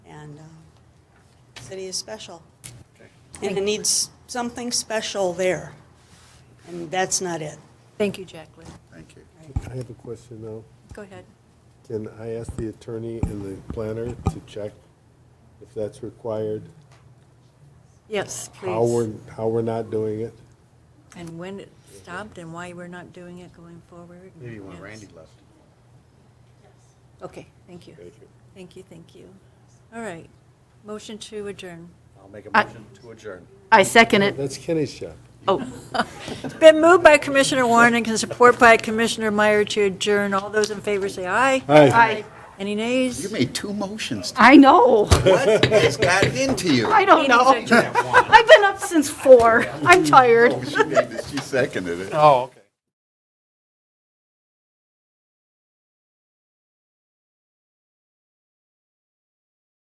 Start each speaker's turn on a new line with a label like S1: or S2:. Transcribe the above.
S1: uh, city is special.
S2: Okay.
S1: And it needs something special there. And that's not it.
S3: Thank you, Jacqueline.
S2: Thank you.
S4: I have a question now.
S3: Go ahead.
S4: Can I ask the attorney and the planner to check if that's required?
S3: Yes,
S4: How we're,
S3: please.
S4: how we're not doing it?
S3: And when it stopped and why we're not doing it going forward.
S2: Maybe when
S3: Yes.
S2: Randy left.
S3: Okay, thank you.
S4: Thank you.
S3: Thank you, thank you. All right. Motion to adjourn.
S2: I'll make a
S5: I-
S2: motion to adjourn.
S5: I second it.
S4: That's Kenny's shop.
S3: Been moved by Commissioner Warren and can support by Commissioner Meyer to adjourn. All those in favor say aye.
S4: Hi.
S3: Any
S2: You
S3: nays?
S2: made two motions.
S5: I know.
S2: What has gotten into you?
S5: I don't know.
S3: Meeting's adjourned.
S5: I've been up since four. I'm tired.
S2: Oh, She made this- she seconded it.
S6: Oh, okay.